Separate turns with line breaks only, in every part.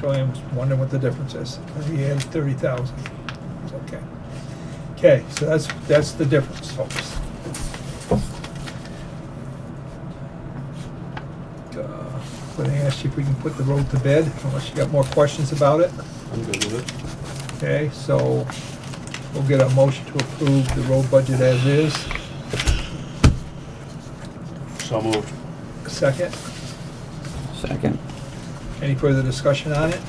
so I'm wondering what the difference is. He had thirty thousand. Okay. Okay, so that's, that's the difference, folks. Uh, But I asked you if we can put the road to bed, unless you got more questions about it.
I'm good with
Okay, so we'll get a motion to approve the road budget as is.
it. So moved.
Second,
Second.
any further discussion on it?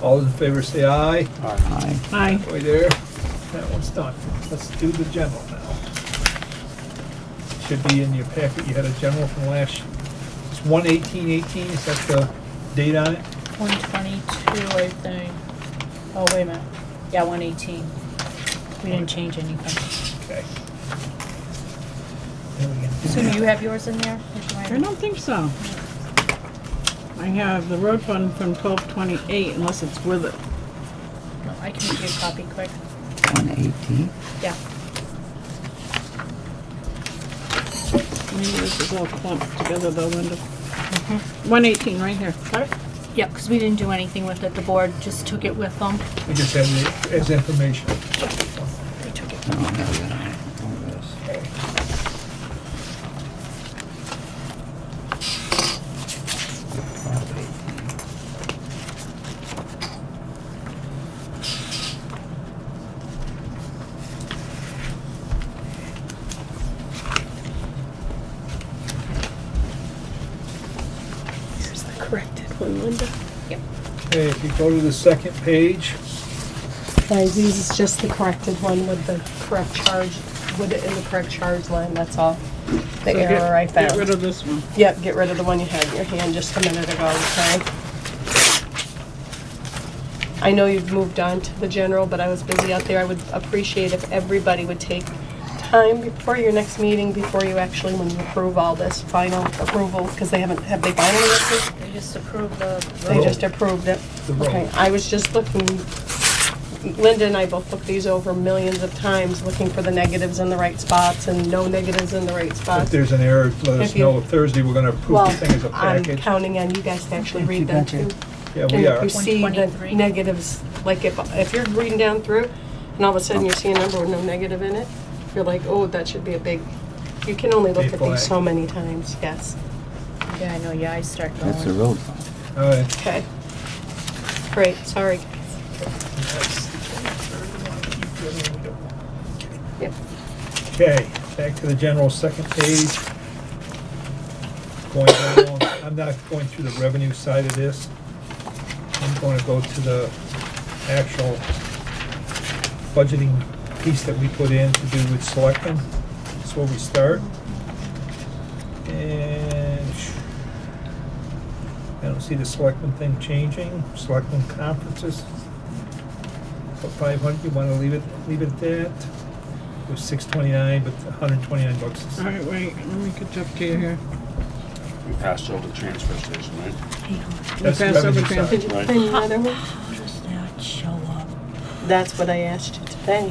All those in favor say aye.
Aye.
Aye.
Aye.
Way there, that one's done. Let's do the general now. Should be in your packet, you had a general from last, it's one eighteen eighteen, is that the date on it?
One twenty-two, I think. Oh, wait a minute. Yeah, one eighteen. We didn't change anything.
Okay. Then we can-
So do you have yours in there? Is mine-
I don't think so. I have the road fund from twelve twenty-eight unless it's with it.
No, I can make you a copy quick.
One eighteen.
Yeah.
Maybe this is all clumped together though, Linda. One eighteen, right here.
Yeah, because we didn't do anything with it. The board just took it with them.
We just have it as information.
We took it.
I don't have that on. Look at this.
Okay.
Property.
Here's the corrected one, Linda.
Okay, if you go to the second page,
Guys, these is just the corrected one with the correct charge, with it in the correct charge line, that's all. The error I
Get rid
found.
of this one.
Yep, get rid of the one you had in your hand just a minute ago, okay? I know you've moved on to the general, but I was busy out there. I would appreciate if everybody would take time before your next meeting, before you actually, when you approve all this final approval, because they haven't, have they finally approved?
They just approved the
They
Roll.
just approved it.
Oh. The roll.
Okay, I was just looking, Linda and I both looked these over millions of times, looking for the negatives in the right spots and no negatives in the right
if
spots.
there's an error, let us
Uh, If you-
know. Thursday, we're gonna approve
Well,
the thing as a
I'm
package.
counting on you guys to actually read them too.
Yeah,
And
we
if
are.
you see the
123.
negatives, like if, if you're reading down through and all of a sudden you see a number with no negative in it, you're like, oh, that should be a big, you can only look
Big
at these so
flag.
many times, yes.
Yeah, I know. Yeah, I start going.
That's the road fund.
All right.
Okay. Great, sorry. Yep.
Okay, back to the general second page. Going down, I'm not going through the revenue side of this. I'm going to go to the actual budgeting piece that we put in to do with selectmen. That's where we start. And I don't see the selectmen thing changing. Selectmen conferences. For five hundred, you want to leave it, leave it at that? It was six twenty-nine, but hundred and twenty-nine bucks is
All right, wait, let me catch up to you here.
We passed over the transfer station, right?
That's
pass
revenue
over
side.
Did you
Right.
find another one?
How does that show up?
That's what I asked you today.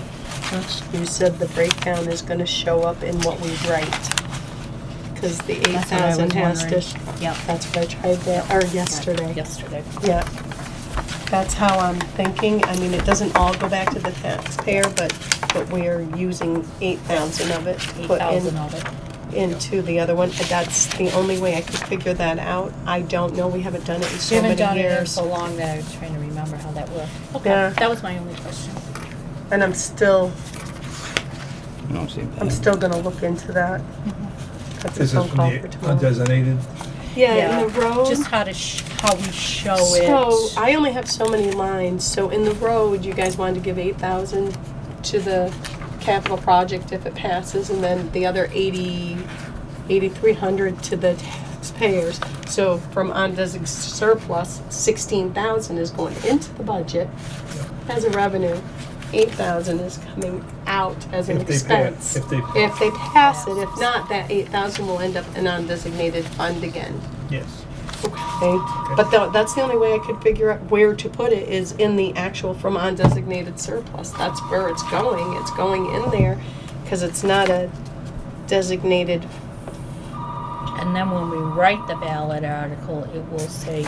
You said the breakdown is gonna show up in what we write. Cause the eight
That's what I was
thousand has to,
wondering. Yep.
that's what I tried that, or yesterday.
Yesterday.
Yeah. That's how I'm thinking. I mean, it doesn't all go back to the taxpayer, but, but we're using eight thousand of it. to
Eight
put in-
thousand of it.
Into the other one. That's the only way I could figure that out. I don't know. We haven't done it in
We
so many
haven't
years.
done it in so long that I was trying to remember how that worked. Okay,
Yeah.
that was my only question.
And I'm still,
You don't see that.
I'm still gonna look into that. That's
This
a
is
phone
from
call for
the
tomorrow.
undesignated.
Yeah, in the road.
Just how to sh- how we show
So
it.
I only have so many lines. So in the road, you guys wanted to give eight thousand to the capital project if it passes, and then the other eighty, eighty-three hundred to the taxpayers. So from undesignated surplus, sixteen thousand is going into the budget as a revenue. Eight thousand is coming out as an
If they pay it,
expense.
if they-
If they pass it, if not, that eight thousand will end up in undesignated fund again.
Yes.
Okay, but tha- that's the only way I could figure out where to put it is in the actual from undesignated surplus. That's where it's going. It's going in there because it's not a designated,
and then when we write the ballot article, it will say